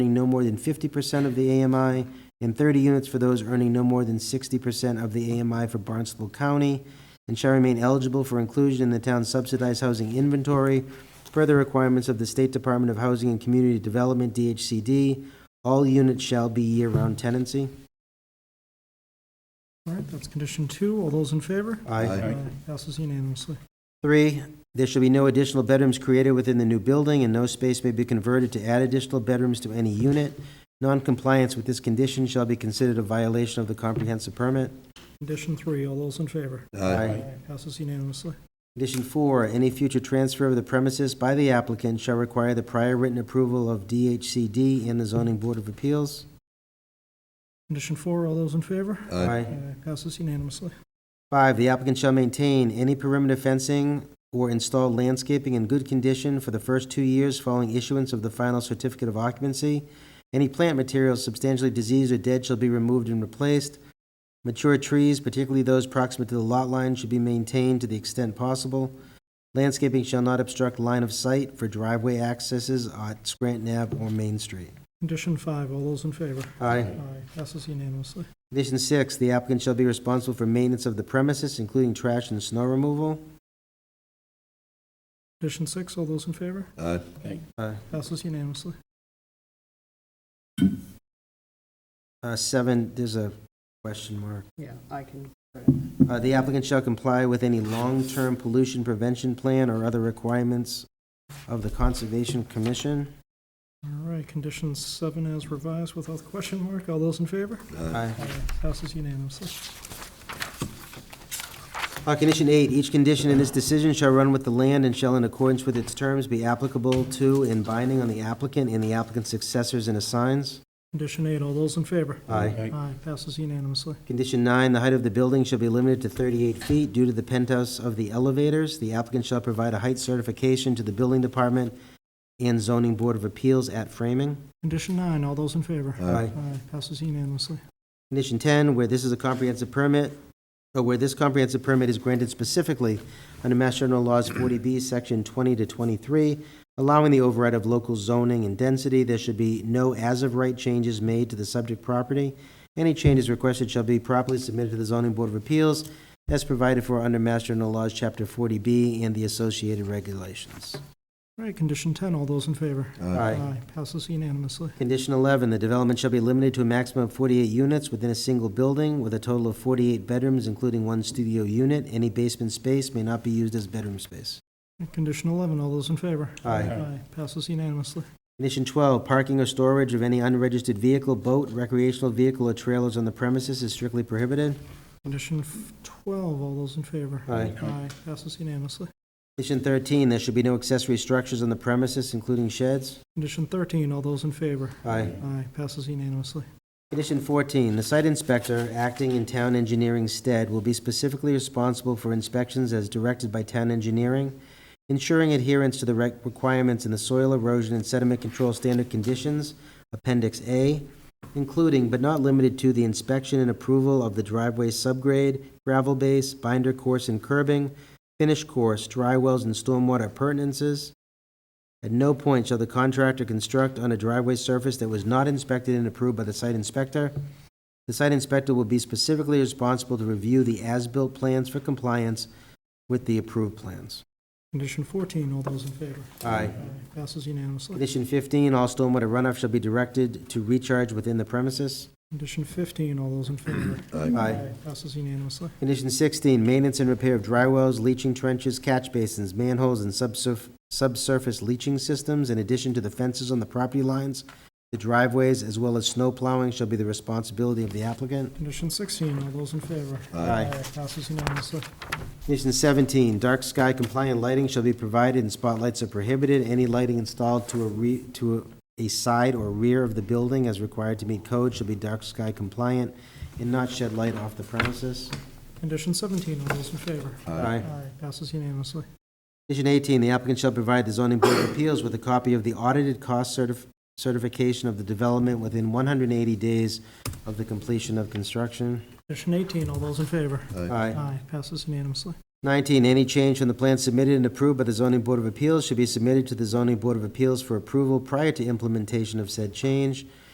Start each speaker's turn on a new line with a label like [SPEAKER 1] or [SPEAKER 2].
[SPEAKER 1] earning no more than 50% of the AMI, and 30 units for those earning no more than 60% of the AMI for Barnstable County, and shall remain eligible for inclusion in the town's subsidized housing inventory, per the requirements of the State Department of Housing and Community Development, DHCD. All units shall be year-round tenancy.
[SPEAKER 2] All right, that's condition two. All those in favor?
[SPEAKER 3] Aye.
[SPEAKER 2] Passes unanimously.
[SPEAKER 1] Three, there shall be no additional bedrooms created within the new building, and no space may be converted to add additional bedrooms to any unit. Noncompliance with this condition shall be considered a violation of the comprehensive permit.
[SPEAKER 2] Condition three, all those in favor?
[SPEAKER 3] Aye.
[SPEAKER 2] Passes unanimously.
[SPEAKER 1] Condition four, any future transfer of the premises by the applicant shall require the prior written approval of DHCD and the zoning board of appeals.
[SPEAKER 2] Condition four, all those in favor?
[SPEAKER 3] Aye.
[SPEAKER 2] Passes unanimously.
[SPEAKER 1] Five, the applicant shall maintain any perimeter fencing or install landscaping in good condition for the first two years following issuance of the final certificate of occupancy. Any plant materials substantially diseased or dead shall be removed and replaced. Mature trees, particularly those proximate to the lot line, should be maintained to the extent possible. Landscaping shall not obstruct line of sight for driveway accesses at Scranton Ave or Main Street.
[SPEAKER 2] Condition five, all those in favor?
[SPEAKER 1] Aye.
[SPEAKER 2] Passes unanimously.
[SPEAKER 1] Condition six, the applicant shall be responsible for maintenance of the premises, including trash and snow removal.
[SPEAKER 2] Condition six, all those in favor?
[SPEAKER 3] Aye.
[SPEAKER 1] Uh,
[SPEAKER 2] Passes unanimously.
[SPEAKER 1] Uh, Seven, there's a question mark.
[SPEAKER 4] Yeah, I can,
[SPEAKER 1] Uh, The applicant shall comply with any long-term pollution prevention plan or other requirements of the Conservation Commission.
[SPEAKER 2] All right, condition seven as revised without the question mark. All those in favor?
[SPEAKER 1] Aye.
[SPEAKER 2] Passes unanimously.
[SPEAKER 1] Uh, Condition eight, each condition in this decision shall run with the land and shall in accordance with its terms be applicable to and binding on the applicant and the applicant's successors and assigns.
[SPEAKER 2] Condition eight, all those in favor?
[SPEAKER 1] Aye.
[SPEAKER 2] Aye. Passes unanimously.
[SPEAKER 1] Condition nine, the height of the building shall be limited to 38 feet due to the penthouse of the elevators. The applicant shall provide a height certification to the building department and zoning board of appeals at framing.
[SPEAKER 2] Condition nine, all those in favor?
[SPEAKER 1] Aye.
[SPEAKER 2] Aye. Passes unanimously.
[SPEAKER 1] Condition 10, where this is a comprehensive permit, or where this comprehensive permit is granted specifically under Mass General Laws 40B, Section 20 to 23, allowing the override of local zoning and density, there should be no as-of-right changes made to the subject property. Any changes requested shall be properly submitted to the Zoning Board of Appeals as provided for under Mass General Laws, Chapter 40B, and the associated regulations.
[SPEAKER 2] All right, condition 10, all those in favor? Passes unanimously.
[SPEAKER 1] Condition 11, the development shall be limited to a maximum of 48 units within a single building with a total of 48 bedrooms, including one studio unit. Any basement space may not be used as bedroom space.
[SPEAKER 2] Condition 11, all those in favor?
[SPEAKER 1] Aye.
[SPEAKER 2] Passes unanimously.
[SPEAKER 1] Condition 12, parking or storage of any unregistered vehicle, boat, recreational vehicle, or trailers on the premises is strictly prohibited.
[SPEAKER 2] Condition f- 12, all those in favor?
[SPEAKER 1] Aye.
[SPEAKER 2] Passes unanimously.
[SPEAKER 1] Condition 13, there should be no accessory structures on the premises, including sheds.
[SPEAKER 2] Condition 13, all those in favor?
[SPEAKER 1] Aye.
[SPEAKER 2] Aye. Passes unanimously.
[SPEAKER 1] Condition 14, the site inspector, acting in town engineering's stead, will be specifically responsible for inspections as directed by town engineering, ensuring adherence to the rec- requirements in the soil erosion and sediment control standard conditions, Appendix A, including but not limited to the inspection and approval of the driveway subgrade, gravel base, binder course and curbing, finish course, dry wells and stormwater appurtenances, at no point shall the contractor construct on a driveway surface that was not inspected and approved by the site inspector. The site inspector will be specifically responsible to review the as-built plans for compliance with the approved plans.
[SPEAKER 2] Condition 14, all those in favor?
[SPEAKER 1] Aye.
[SPEAKER 2] Passes unanimously.
[SPEAKER 1] Condition 15, all stormwater runoff shall be directed to recharge within the premises.
[SPEAKER 2] Condition 15, all those in favor?
[SPEAKER 1] Aye.
[SPEAKER 2] Passes unanimously.
[SPEAKER 1] Condition 16, maintenance and repair of dry wells, leaching trenches, catch basins, manholes, and subsurf- subsurface leaching systems, in addition to the fences on the property lines, the driveways, as well as snow plowing shall be the responsibility of the applicant.
[SPEAKER 2] Condition 16, all those in favor?
[SPEAKER 1] Aye.
[SPEAKER 2] Passes unanimously.
[SPEAKER 1] Condition 17, dark sky compliant lighting shall be provided and spotlights are prohibited. Any lighting installed to a re, to a side or rear of the building as required to meet code shall be dark sky compliant and not shed light off the premises.
[SPEAKER 2] Condition 17, all those in favor?
[SPEAKER 1] Aye.
[SPEAKER 2] Passes unanimously.
[SPEAKER 1] Condition 18, the applicant shall provide the zoning board of appeals with a copy of the audited cost certif- certification of the development within 180 days of the completion of construction.
[SPEAKER 2] Condition 18, all those in favor?
[SPEAKER 1] Aye.
[SPEAKER 2] Aye, passes unanimously.
[SPEAKER 1] 19, any change from the plan submitted and approved by the zoning board of appeals should be submitted to the zoning board of appeals for approval prior to implementation of said change.